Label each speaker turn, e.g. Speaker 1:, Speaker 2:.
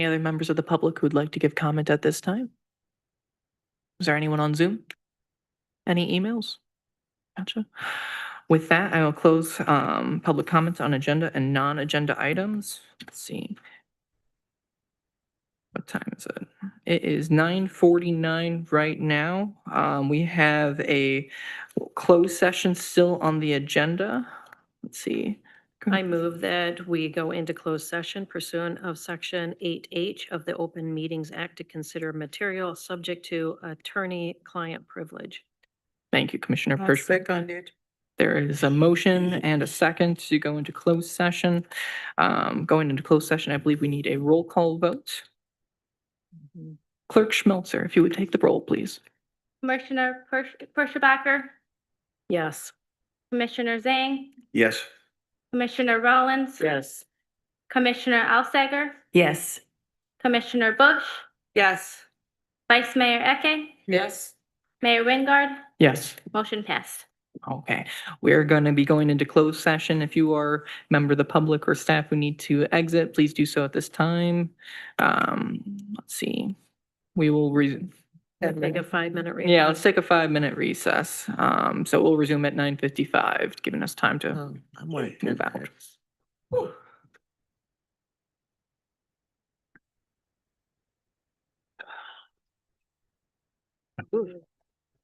Speaker 1: Any other members of the public who'd like to give comment at this time? Is there anyone on Zoom? Any emails? Gotcha. With that, I will close um, public comments on agenda and non-agenda items. Let's see. What time is it? It is nine forty-nine right now. Um, We have a closed session still on the agenda. Let's see. Mm-hmm.
Speaker 2: I move that we go into closed session pursuant of Section 8H of the Open Meetings Act to consider material subject to attorney-client privilege.
Speaker 1: Thank you, Commissioner
Speaker 3: I'll
Speaker 1: Pershman.
Speaker 3: Seconded.
Speaker 1: There is a motion and a second to go into closed session. Um, going into closed session, I believe we need a roll call vote. Clerk Schmelzer, if you would take the roll, please.
Speaker 4: Commissioner Persh- Perschebacker,
Speaker 2: Yes.
Speaker 4: Commissioner Zhang,
Speaker 5: Yes.
Speaker 4: Commissioner Rollins.
Speaker 2: Yes.
Speaker 4: Commissioner Alsager,
Speaker 3: Yes.
Speaker 4: Commissioner Bush,
Speaker 3: Yes.
Speaker 4: Vice Mayor Eke,
Speaker 3: Yes.
Speaker 4: Mayor Wingard,
Speaker 1: Yes,
Speaker 4: motion passed.
Speaker 1: okay. We're going to be going into closed session. If you are a member of the public or staff who need to exit, please do so at this time. Um, let's see. We will re-
Speaker 2: Take a five-minute recess.
Speaker 1: yeah, let's take a five-minute recess. Um, so we'll resume at nine fifty-five, giving us time to
Speaker 3: Um,
Speaker 5: I want
Speaker 1: move out.